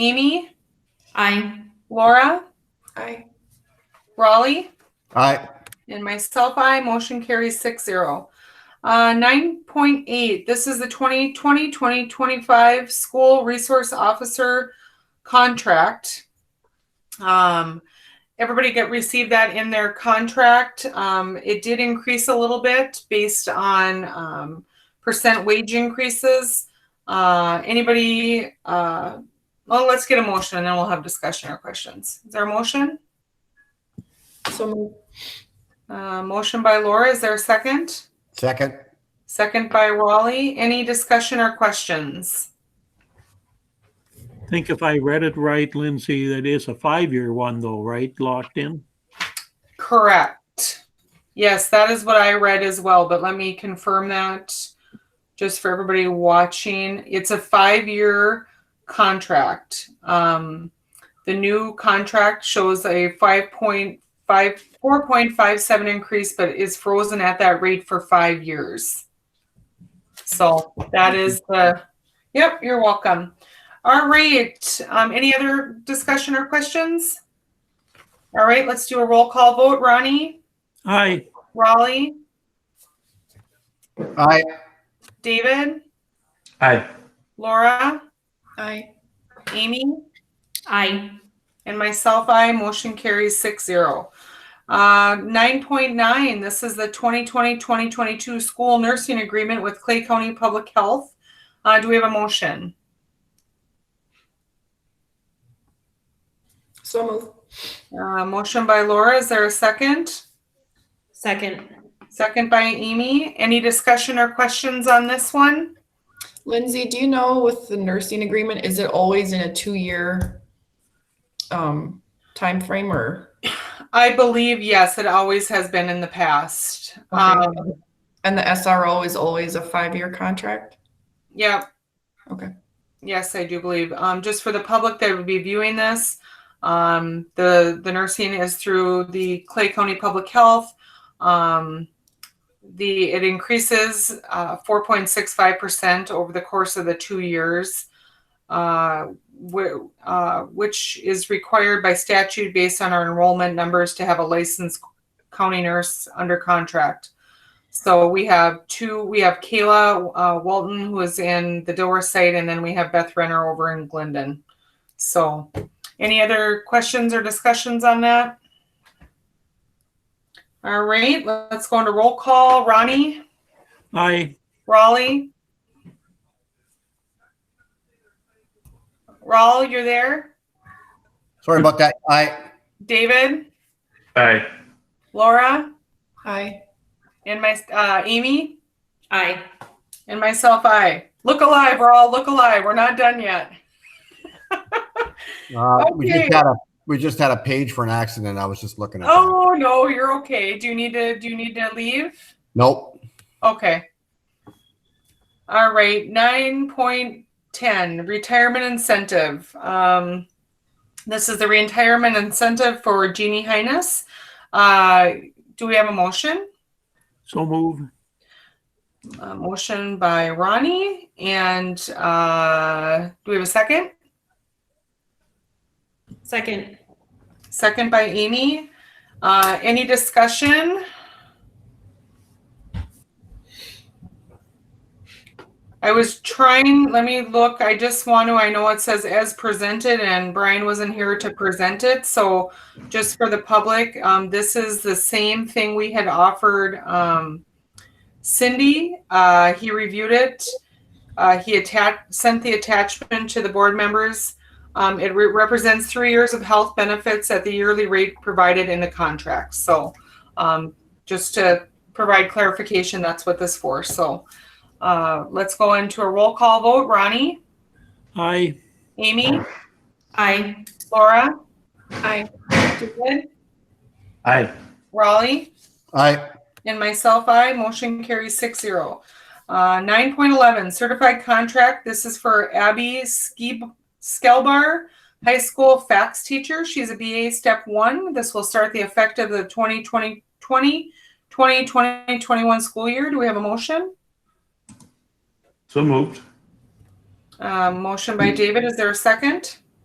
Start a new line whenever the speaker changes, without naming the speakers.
Mimi,
Aye.
Laura,
Aye.
Raleigh,
Aye.
and myself, I, motion carries six zero. Uh, nine point eight, this is the 2020-2025 school resource officer contract. Um, everybody get, received that in their contract. Um, it did increase a little bit based on, um, percent wage increases. Uh, anybody, uh, well, let's get a motion and then we'll have discussion or questions. Is there a motion?
So moved.
Uh, motion by Laura, is there a second?
Second.
Second by Raleigh. Any discussion or questions?
I think if I read it right, Lindsay, that is a five-year one though, right? Locked in?
Correct. Yes, that is what I read as well, but let me confirm that just for everybody watching. It's a five-year contract. Um, the new contract shows a five point five, four point five seven increase, but is frozen at that rate for five years. So that is the, yep, you're welcome. All right, um, any other discussion or questions? All right, let's do a roll call vote. Ronnie,
Aye.
Raleigh,
Aye.
David,
Aye.
Laura,
Aye.
Amy,
Aye.
and myself, I motion carries six zero. Uh, nine point nine, this is the 2020-2022 school nursing agreement with Clay County Public Health. Uh, do we have a motion?
So moved.
Uh, motion by Laura, is there a second?
Second.
Second by Amy. Any discussion or questions on this one?
Lindsay, do you know with the nursing agreement, is it always in a two-year um, timeframe or?
I believe, yes, it always has been in the past. Um,
And the SRO is always a five-year contract?
Yeah.
Okay.
Yes, I do believe. Um, just for the public that would be viewing this, um, the, the nursing is through the Clay County Public Health. Um, the, it increases, uh, four point six five percent over the course of the two years. Uh, wh- uh, which is required by statute based on our enrollment numbers to have a licensed county nurse under contract. So we have two, we have Kayla uh, Walton, who is in the Dilworth site, and then we have Beth Renner over in Glendon. So any other questions or discussions on that? All right, let's go into roll call. Ronnie,
Aye.
Raleigh. Raul, you're there?
Sorry about that. Aye.
David,
Aye.
Laura,
Aye.
and my, uh, Amy,
Aye.
and myself, I. Look alive, we're all look alive. We're not done yet.
Uh, We just
Okay.
had a, we just had a page for an accident. I was just looking at. that.
Oh no, you're okay. Do you need to do you need to leave?
Nope.
Okay. All right, nine point ten, retirement incentive. Um, this is the retirement incentive for Jeannie Highness. Uh, do we have a motion?
So moved.
A motion by Ronnie and uh, do we have a second?
Second.
Second by Amy. Uh, any discussion? I was trying, let me look, I just want to, I know it says as presented and Brian wasn't here to present it, so just for the public, um, this is the same thing we had offered, um, Cindy, uh, he reviewed it. Uh, he attached, sent the attachment to the board members. Um, it re- represents three years of health benefits at the yearly rate provided in the contract. So, um, just to provide clarification, that's what this for. So, uh, let's go into a roll call vote. Ronnie,
Aye.
Amy,
Aye.
Laura,
Aye.
David,
Aye.
Raleigh.
Aye.
And myself, I, motion carries six zero. Uh, nine point eleven, certified contract, this is for Abby Skeeb, Skelbar, high school fax teacher, she's a BA step one, this will start the effect of the 2020 20, 20, 20, 21 school year, do we have a motion?
So moved.
Uh, motion by David, is there a second?